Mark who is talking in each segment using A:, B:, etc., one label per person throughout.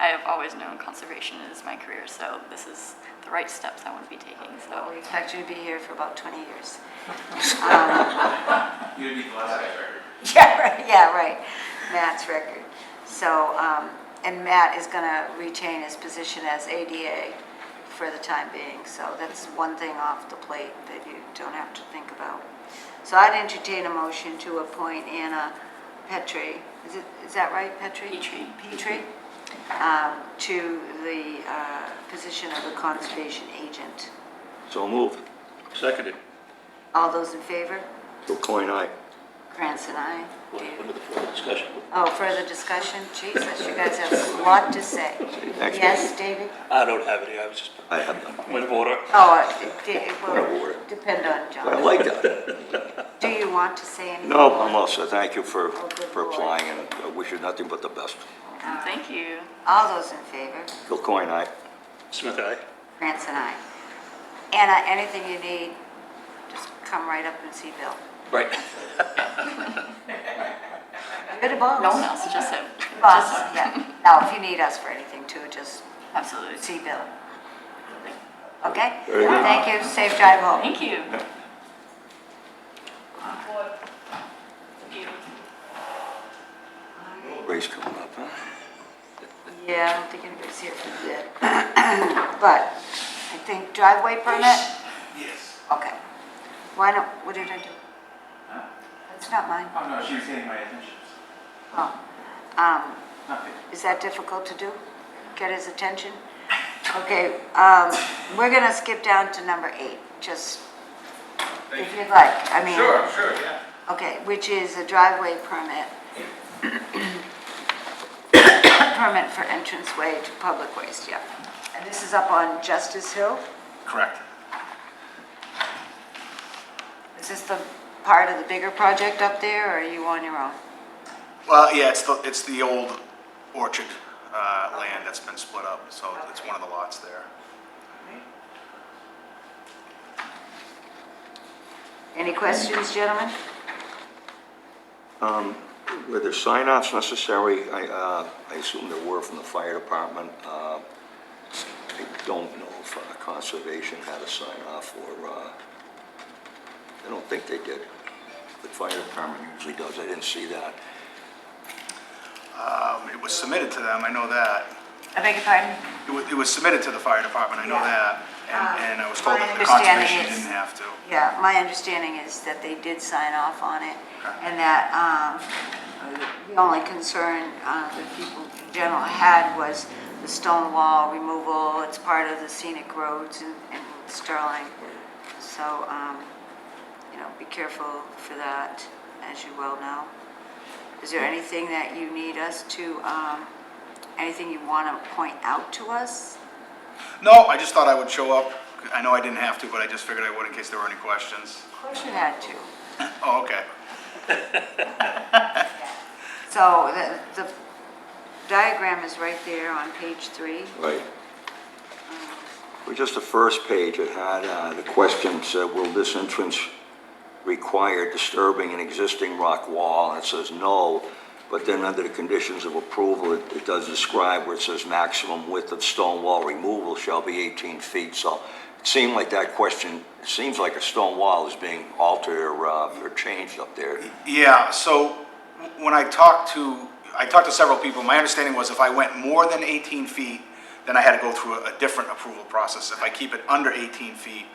A: I have always known conservation is my career, so this is the right steps I want to be taking,
B: Well,
A: so.
B: we expect you to be here for about 20 years.
C: You'd be the last guy record.
B: Yeah, right, yeah, right, Matt's record. So, um, and Matt is going to retain his position as ADA for the time being, so that's one thing off the plate that you don't have to think about. So I'd entertain a motion to appoint Anna Petrie, is it, is that right, Petrie?
A: Petrie.
B: Petrie, um, to the uh, position of a conservation agent.
D: So moved. Seconded.
B: All those in favor?
D: Coin aye.
B: Krantz and I.
D: Under the further discussion.
B: Oh, further discussion? Jesus, you guys have a lot to say.
D: Actually-
B: Yes, David?
E: I don't have any, I was just,
D: I have none.
E: point of order.
B: Oh, it- it it will
D: Whatever.
B: depend on
D: I
B: John.
D: like that.
B: Do you want to say anything?
D: No, I'm all set. Thank you for, for applying and I wish you nothing but the best.
A: And thank you.
B: All those in favor?
D: Bill Coin aye.
E: Smith, aye.
B: Grants and I. Anna, anything you need, just come right up and see Bill.
E: Right.
B: You're the boss.
A: No one else, just him.
B: Boss,
A: Just him.
B: yeah. Now, if you need us for anything too, just
A: Absolutely.
B: see Bill. Okay?
D: Very good.
B: Thank you. Safe drive home.
A: Thank you. Thank you.
D: Race coming up, huh?
B: Yeah, I don't think anybody's here for that. But I think driveway permit,
C: Yes.
B: okay. Why don't, what did I do? It's not mine.
C: Oh, no, she was getting my attention.
B: Oh. Um,
C: Nothing.
B: Is that difficult to do? Get his attention? Okay, um, we're gonna skip down to number eight, just if you'd like. I mean,
C: Sure, sure, yeah.
B: Okay, which is a driveway permit. Permit for entranceway to public waste, yeah. And this is up on Justice Hill?
C: Correct.
B: Is this the part of the bigger project up there, or are you on your own?
F: Well, yeah, it's the, it's the old orchard uh, land that's been split up, so it's one of the lots there.
B: Any questions, gentlemen?
D: Were there sign-offs necessary? I, uh, I assume there were from the fire department. Uh, I don't know if uh, conservation had a sign-off or, uh, I don't think they did. The fire department usually does. I didn't see that.
F: Um, It was submitted to them, I know that.
B: I beg your pardon?
F: It was, it was submitted to the fire department, I know
B: Yeah. Uh,
F: that. And, and I was told that
B: My
F: the
B: understanding
F: conservation
B: is-
F: didn't have to.
B: Yeah, my understanding is that they did sign off on it, and that um, the only concern uh, that people in general had was the stone wall removal, it's part of the scenic roads in in Sterling. So, um, you know, be careful for that, as you well know. Is there anything that you need us to, um, anything you want to point out to us?
F: No, I just thought I would show up. I know I didn't have to, but I just figured I would in case there were any questions.
B: Of course you had to.
F: Oh, okay.
B: So the, the diagram is right there on page three.
D: Right. Well, just the first page, it had, uh, the question said, will this entrance require disturbing an existing rock wall? And it says no, but then under the conditions of approval, it, it does describe where it says maximum width of stone wall removal shall be 18 feet. So it seemed like that question, it seems like a stone wall is being altered or, uh, or changed up there.
F: Yeah, so w- when I talked to, I talked to several people, my understanding was if I went more than 18 feet, then I had to go through a a different approval process. If I keep it under 18 feet,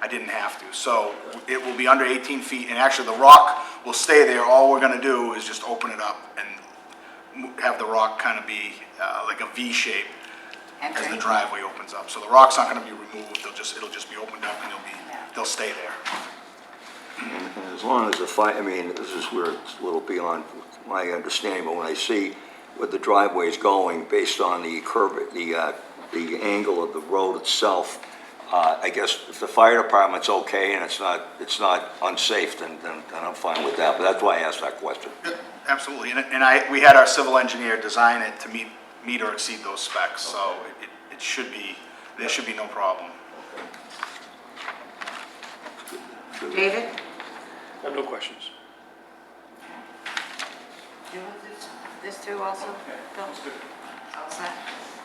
F: I didn't have to. So it will be under 18 feet, and actually, the rock will stay there. All we're gonna do is just open it up and mo- have the rock kind of be uh, like a V shape as the
B: Okay.
F: driveway opens up. So the rock's not gonna be removed, they'll just, it'll just be opened up and they'll be, they'll stay there.
D: And As long as the fire, I mean, this is where it's a little beyond my understanding, but when I see where the driveway is going based on the curve, the, uh, the angle of the road itself, uh, I guess if the fire department's okay and it's not, it's not unsafe, then, then then I'm fine with that, but that's why I asked that question.
F: Absolutely, and and I, we had our civil engineer design it to meet, meet or exceed those specs, so it, it should be, there should be no problem.
B: David?
E: I have no questions.
B: You want this- this through also? Bill? All set?